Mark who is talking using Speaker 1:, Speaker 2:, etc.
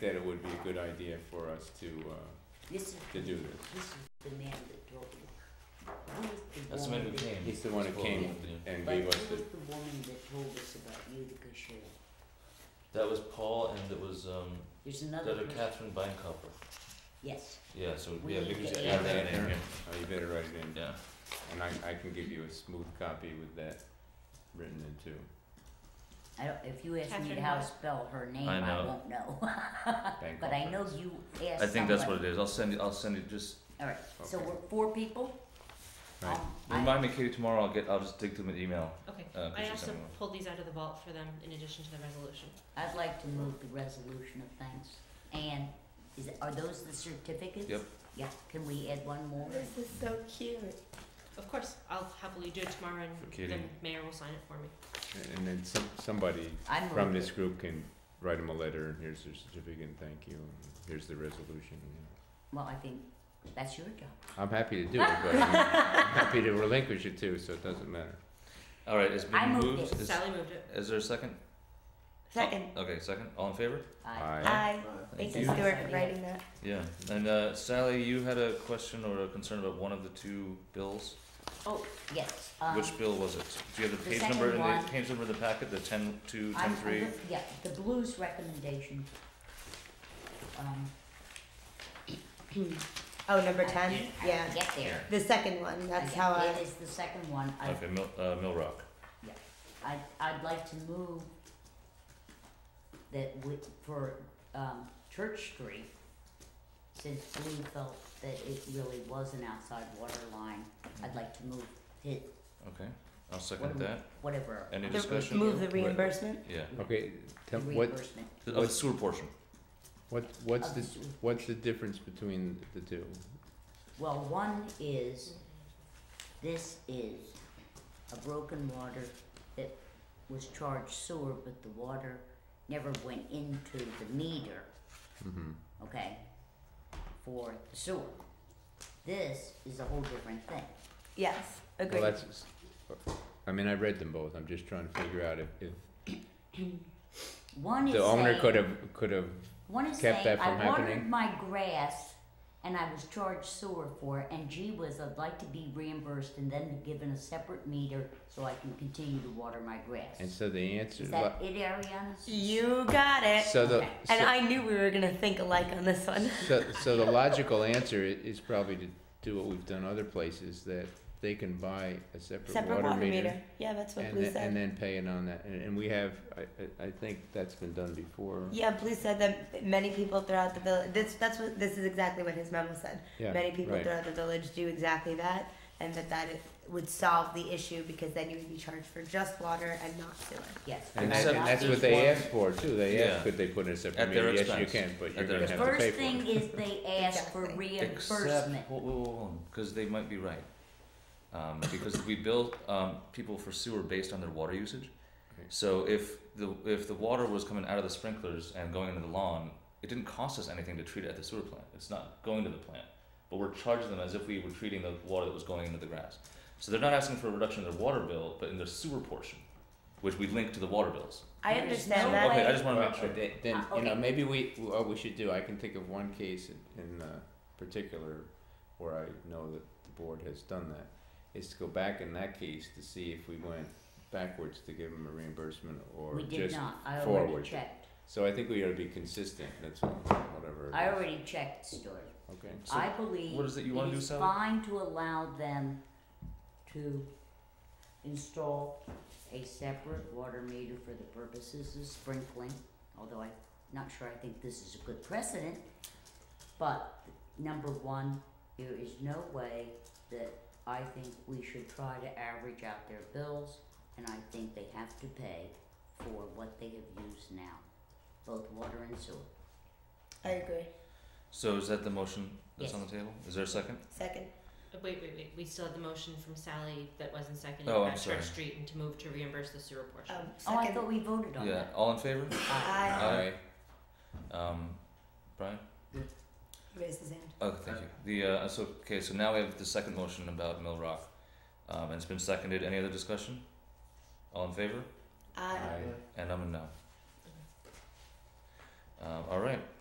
Speaker 1: that it would be a good idea for us to, uh,
Speaker 2: This is,
Speaker 1: to do this.
Speaker 2: this is the man that told me. Who was the
Speaker 3: That's the man
Speaker 2: woman
Speaker 3: who
Speaker 2: that-
Speaker 3: came.
Speaker 1: He's the one who came and
Speaker 2: But who
Speaker 1: gave
Speaker 2: was
Speaker 1: us the,
Speaker 2: the woman that told us about Utica Shale?
Speaker 3: That was Paul, and it was um,
Speaker 2: There's
Speaker 3: the
Speaker 2: another
Speaker 3: other
Speaker 2: person,
Speaker 3: Catherine Beinkopper.
Speaker 2: yes,
Speaker 3: Yeah, so
Speaker 2: We
Speaker 3: yeah,
Speaker 2: need
Speaker 3: we
Speaker 2: to
Speaker 3: could just
Speaker 2: add
Speaker 1: that
Speaker 3: add that in
Speaker 1: in.
Speaker 3: here.
Speaker 1: oh, you better write it in,
Speaker 3: Yeah.
Speaker 1: and I, I can give you a smooth copy with that written in too.
Speaker 2: I don't, if you ask me
Speaker 4: Catherine
Speaker 2: how to
Speaker 4: Hahn.
Speaker 2: spell her name,
Speaker 3: I
Speaker 2: I
Speaker 3: know.
Speaker 2: won't know.
Speaker 1: Bank
Speaker 2: Uh, But I know
Speaker 1: offerings.
Speaker 2: you asked
Speaker 3: I think that's what
Speaker 2: someone-
Speaker 3: it is. I'll send it. I'll send it. Just
Speaker 2: Alright, so
Speaker 1: Okay.
Speaker 2: we're four people?
Speaker 1: Right.
Speaker 2: Um, I-
Speaker 3: remind me, Katie. Tomorrow, I'll get. I'll just dig them an email.
Speaker 4: Okay,
Speaker 3: Uh,
Speaker 4: I
Speaker 3: Christian
Speaker 4: also
Speaker 3: sent me one.
Speaker 4: pulled these out of the vault for them in addition to the resolution.
Speaker 2: I'd like to move the resolution of thanks. And is, it- are those the certificates?
Speaker 3: Yep.
Speaker 2: Yeah, can we add one more?
Speaker 4: is so cute. Of course, I'll happily do it tomorrow
Speaker 1: For Katie.
Speaker 4: and the mayor will sign it for me.
Speaker 1: And then some, somebody
Speaker 2: I moved
Speaker 1: from
Speaker 2: it.
Speaker 1: this group can write him a letter, and here's their certificate, and thank you, and here's the resolution, you know.
Speaker 2: Well, I think that's your job.
Speaker 1: I'm happy to do it, but I'm happy to relinquish it too, so it doesn't matter.
Speaker 3: All right, it's been
Speaker 2: I moved
Speaker 3: moved.
Speaker 2: it.
Speaker 3: Is,
Speaker 4: Sally moved it.
Speaker 3: is there a second?
Speaker 5: Second.
Speaker 3: Okay, second. All in favor?
Speaker 2: Aye.
Speaker 1: Aye.
Speaker 5: Hi,
Speaker 3: Thank
Speaker 5: thank
Speaker 3: you.
Speaker 5: you Stuart for writing that.
Speaker 3: Yeah. And uh, Sally, you had a question or a concern about one of the two bills.
Speaker 2: Oh, yes, um.
Speaker 3: Which bill was it? Do you have
Speaker 2: the
Speaker 3: the page
Speaker 2: second
Speaker 3: number? in
Speaker 2: one.
Speaker 3: The page number in the packet. The ten two
Speaker 2: I'm-
Speaker 3: ten
Speaker 2: I'm
Speaker 3: three.
Speaker 2: look- Yeah, the blues recommendation. Um,
Speaker 5: Oh, number
Speaker 2: I
Speaker 5: ten,
Speaker 2: didn't- I
Speaker 5: yeah.
Speaker 2: didn't Get there.
Speaker 5: The second one, that's
Speaker 2: Okay,
Speaker 5: how I,
Speaker 2: It is the second one. I,
Speaker 3: Okay, Mill, uh, Mill Rock.
Speaker 2: I, I'd like to move that we, for, um, Church Street, since Blue felt that it really was an outside water line, I'd like to move it,
Speaker 3: Okay, I'll
Speaker 2: What
Speaker 3: second
Speaker 2: do we-
Speaker 3: that.
Speaker 2: whatever.
Speaker 3: Any
Speaker 2: I-
Speaker 3: discussion?
Speaker 5: move the
Speaker 3: Right.
Speaker 5: reimbursement.
Speaker 3: Yeah.
Speaker 1: Okay,
Speaker 2: the
Speaker 1: tell, what,
Speaker 2: Reimbursement
Speaker 3: The- Of the sewer portion.
Speaker 1: what, what's
Speaker 2: of
Speaker 1: the,
Speaker 2: sewer.
Speaker 1: what's the difference between the two?
Speaker 2: Well, one is, this is a broken water that was charged sewer, but the water never went into the meter,
Speaker 1: Mm-hmm,
Speaker 2: okay, for the sewer. This is a whole different thing.
Speaker 5: Yes,
Speaker 1: well,
Speaker 5: agreed.
Speaker 1: that's, s- I mean, I read them both, I'm just trying to figure out if, if
Speaker 2: One is
Speaker 1: the owner
Speaker 2: saying,
Speaker 1: could have, could have,
Speaker 2: one is
Speaker 1: kept
Speaker 2: saying,
Speaker 1: that from
Speaker 2: I watered
Speaker 1: happening."
Speaker 2: my grass and I was charged sewer for it, and gee whiz, I'd like to be reimbursed and then given a separate meter so I can continue to water my grass.
Speaker 1: and so the answer,
Speaker 2: Is that it, Ariana?
Speaker 5: You got it.
Speaker 1: so the,
Speaker 2: okay.
Speaker 5: And
Speaker 1: so,
Speaker 5: I knew we were gonna think alike on this one.
Speaker 1: so, so the logical answer i- is probably to do what we've done other places, that they can buy a separate
Speaker 5: Separate
Speaker 1: water meter
Speaker 5: Yeah, that's what
Speaker 1: and
Speaker 5: Blue
Speaker 1: then, and
Speaker 5: said.
Speaker 1: then pay it on that, and, and we have, I, I, I think that's been done before,
Speaker 5: Yeah, Blue said that many people throughout the village, this, that's what, this is exactly what his memo said.
Speaker 1: yeah,
Speaker 5: Many people
Speaker 1: right.
Speaker 5: throughout the village do exactly that, and that that it would solve the issue because then you would be charged for just water and not sewer.
Speaker 2: Yes.
Speaker 1: And
Speaker 3: Except
Speaker 1: that,
Speaker 3: that
Speaker 1: that's what
Speaker 3: there's
Speaker 1: they
Speaker 3: one-
Speaker 1: asked for too, they asked,
Speaker 3: Yeah.
Speaker 1: could they put in a separate
Speaker 3: At their
Speaker 1: meter, yes, you
Speaker 3: expense.
Speaker 1: can, but
Speaker 3: At
Speaker 1: you're
Speaker 3: their
Speaker 1: gonna have to
Speaker 2: First
Speaker 1: pay for it.
Speaker 2: thing is they ask for
Speaker 5: Exactly.
Speaker 2: reimbursement.
Speaker 3: Except, whoa, whoa, whoa, because they might be right. Um, because we bill um, people for sewer based on their water usage.
Speaker 1: Okay.
Speaker 3: So if the if the water was coming out of the sprinklers and going into the lawn, it didn't cost us anything to treat it at the sewer plant. It's not going to the plant, but we're charging them as if we were treating the water that was going into the grass. So they're not asking for a reduction in their water bill, but in their sewer portion, which we link to the water bills.
Speaker 5: I
Speaker 2: There's
Speaker 5: understand
Speaker 2: no
Speaker 5: that.
Speaker 3: Okay, I just want to
Speaker 1: Well,
Speaker 3: make sure.
Speaker 1: then, then,
Speaker 2: Ah,
Speaker 1: you know,
Speaker 2: okay.
Speaker 1: maybe we, what we should do, I can think of one case in, in uh, particular where I know that the board has done that, is to go back in that case to see if we went backwards to give them a reimbursement or
Speaker 2: We
Speaker 1: just.
Speaker 2: did not, I
Speaker 1: forward.
Speaker 2: already checked.
Speaker 1: So I think we ought to be consistent, that's all, whatever. it
Speaker 2: I
Speaker 1: is.
Speaker 2: already checked, Stuart.
Speaker 1: Okay,
Speaker 3: So
Speaker 2: I believe
Speaker 3: what is it you wanna
Speaker 2: it
Speaker 3: do,
Speaker 2: is
Speaker 3: Sally?
Speaker 2: fine to allow them to install a separate water meter for the purposes of sprinkling, although I'm not sure I think this is a good precedent. But, number one, there is no way that I think we should try to average out their bills, and I think they have to pay for what they have used now, both water and sewer.
Speaker 5: I agree.
Speaker 3: So is that the motion that's
Speaker 2: Yes.
Speaker 3: on the table? Is there a second?
Speaker 5: Second.
Speaker 4: Uh, Wait, wait, wait, we still have the motion from Sally that wasn't seconded
Speaker 3: Oh, I'm
Speaker 4: about
Speaker 3: sorry.
Speaker 4: Church Street and to move to reimburse the sewer portion.
Speaker 5: Um,
Speaker 2: Oh, I
Speaker 5: second.
Speaker 2: thought we voted on
Speaker 3: Yeah.
Speaker 2: that.
Speaker 3: All in favor?
Speaker 5: Aye.
Speaker 3: Aye. Um, Brian.
Speaker 5: Raise his hand.
Speaker 3: Oh, thank you. The, uh, so, okay, so now we have the second motion about Mill Rock. Um, and it's been seconded. Any other discussion? All in favor?
Speaker 5: Uh, Aye.
Speaker 1: Aye.
Speaker 3: And I'm a no. Um, all right.